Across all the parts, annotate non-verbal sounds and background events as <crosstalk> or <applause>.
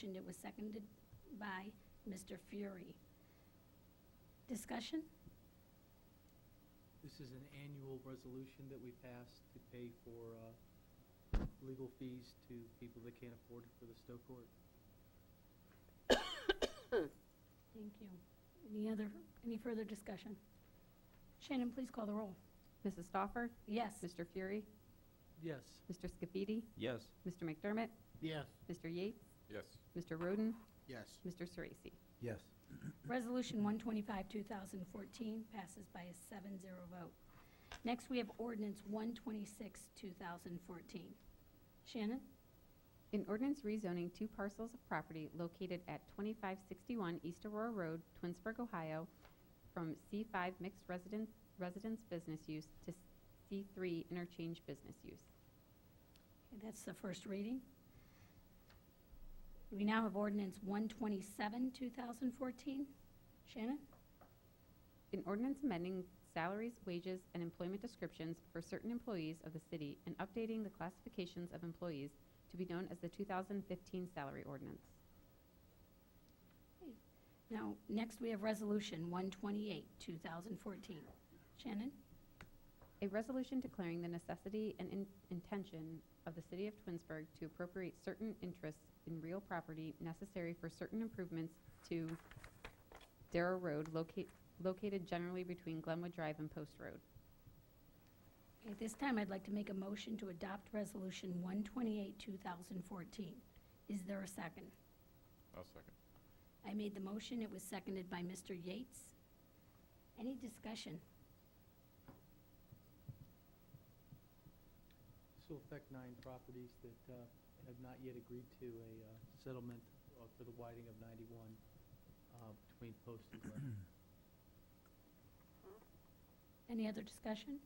Motion, it was seconded by Mr. Fury. Discussion? This is an annual resolution that we pass to pay for uh, legal fees to people that can't afford it for the Stowe Court. Thank you. Any other, any further discussion? Shannon, please call the roll. Mrs. Stoffer? Yes. Mr. Fury? Yes. Mr. Scafidi? Yes. Mr. McDermott? Yes. Mr. Yates? Yes. Mr. Roden? Yes. Mr. Sorese? Yes. Resolution 125, 2014 passes by a 7-0 vote. Next, we have ordinance 126, 2014. Shannon? An ordinance rezoning two parcels of property located at 2561 East Aurora Road, Twinsburg, Ohio, from C5 mixed residence, residence business use to C3 interchange business use. Okay, That's the first reading. We now have ordinance 127, 2014. Shannon? An ordinance amending salaries, wages, and employment descriptions for certain employees of the city and updating the classifications of employees to be known as the 2015 salary ordinance. Now, next we have Resolution 128, 2014. Shannon? A resolution declaring the necessity and in- intention of the city of Twinsburg to appropriate certain interests in real property necessary for certain improvements to Darrow Road locate, located generally between Glenwood Drive and Post Road. At this time, I'd like to make a motion to adopt Resolution 128, 2014. Is there a second? I'll second. I made the motion, it was seconded by Mr. Yates. Any discussion? This will affect nine properties that uh, have not yet agreed to a uh, settlement uh, for the widening of 91 uh, between Post and Glen. Any other discussion?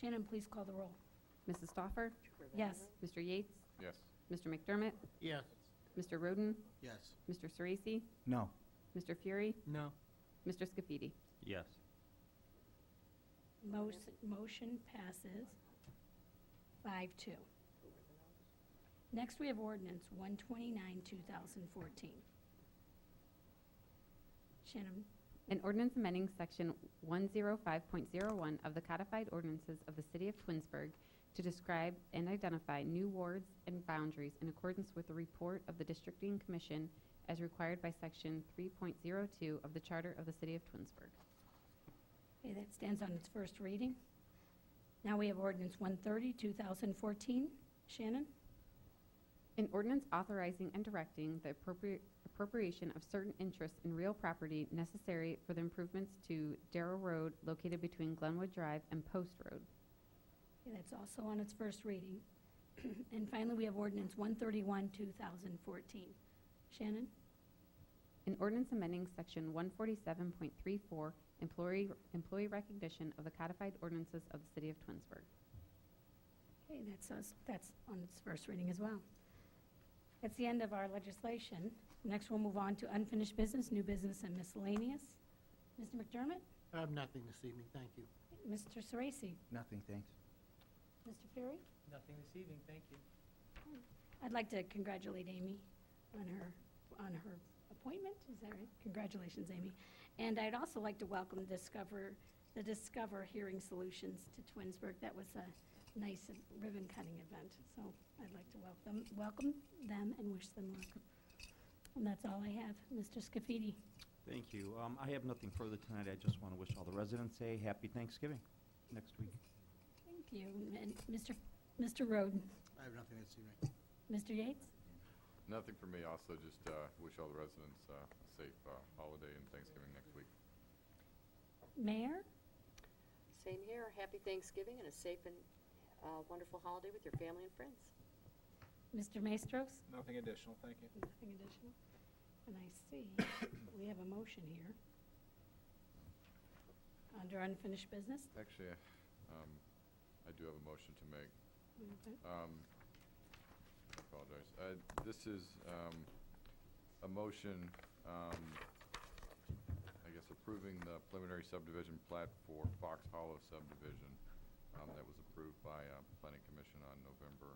Shannon, please call the roll. Mrs. Stoffer? Yes. Mr. Yates? Yes. Mr. McDermott? <clears throat> Yes. Mr. Roden? Yes. Mr. Sorese? No. Mr. Fury? No. Mr. Scafidi? Yes. Mos- Motion passes five two. Next, we have ordinance one twenty-nine, two thousand fourteen. Shannon, An ordinance amending section one zero five point zero one of the codified ordinances of the city of Twinsburg to describe and identify new wards and boundaries in accordance with the report of the districting commission as required by section three point zero two of the charter of the city of Twinsburg. okay, that stands on its first reading. Now we have ordinance one thirty, two thousand fourteen. Shannon, An ordinance authorizing and directing the appropriate appropriation of certain interests in real property necessary for the improvements to Darrow Road located between Glenwood Drive and Post Road. okay, that's also on its first reading. <clears throat> And finally, we have ordinance one thirty-one, two thousand fourteen. Shannon, An ordinance amending section one forty-seven point three four, employee, employee recognition of the codified ordinances of the city of Twinsburg. okay, that's us, that's on its first reading as well. That's the end of our legislation. Next, we'll move on to unfinished business, new business, and miscellaneous. Mr. McDermott? I have nothing this evening, thank you. Mr. Sorese? Nothing, thanks. Mr. Fury? Nothing this evening, thank you. I'd like to congratulate Amy on her, on her appointment. Is that right? Congratulations, Amy. And I'd also like to welcome Discover, the Discover Hearing Solutions to Twinsburg. That was a nice ribbon-cutting event, so I'd like to welcome, welcome them and wish them luck. And that's all I have. Mr. Scafidi? Thank you. Um, I have nothing further tonight. I just want to wish all the residents a happy Thanksgiving next week. Thank you. And Mr. Mr. Roden? I have nothing this evening. Mr. Yates? Nothing for me. Also, just uh, wish all the residents uh, a safe uh, holiday and Thanksgiving next week. Mayor? Same here. Happy Thanksgiving and a safe and uh, wonderful holiday with your family and friends. Mr. Maestros? Nothing additional, thank you. Nothing additional? And I see, <coughs> we have a motion here. Under unfinished business. Actually, um, I do have a motion to make. Okay. Um, I apologize. Uh, This is um, a motion, um, I guess, approving the preliminary subdivision plat for Fox Hollow subdivision um, that was approved by uh, Planning Commission on November